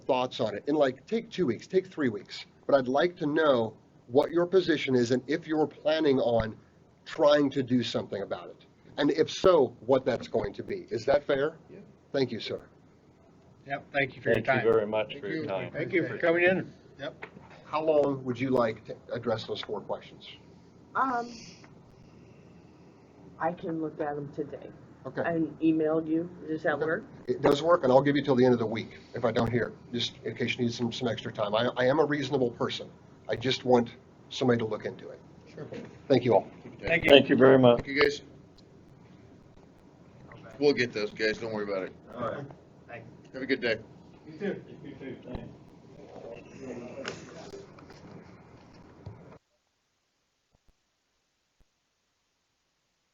thoughts on it in like, take two weeks, take three weeks. But I'd like to know what your position is and if you're planning on trying to do something about it. And if so, what that's going to be. Is that fair? Yeah. Thank you, sir. Yep, thank you for your Thank you time. very much for your you. time. Thank you for coming in. Yep, How long would you like to address those four questions? Um, I can look at them today. Okay, I emailed you, does that work? it does work, and I'll give you till the end of the week if I don't hear, just in case you need some, some extra time. I, I am a reasonable person. I just want somebody to look into it. sure. Thank you all. Thank you. Thank you very much. Thank you, guys. We'll get those, guys, don't worry about it. All right. Have a good day. You too. You too, thanks.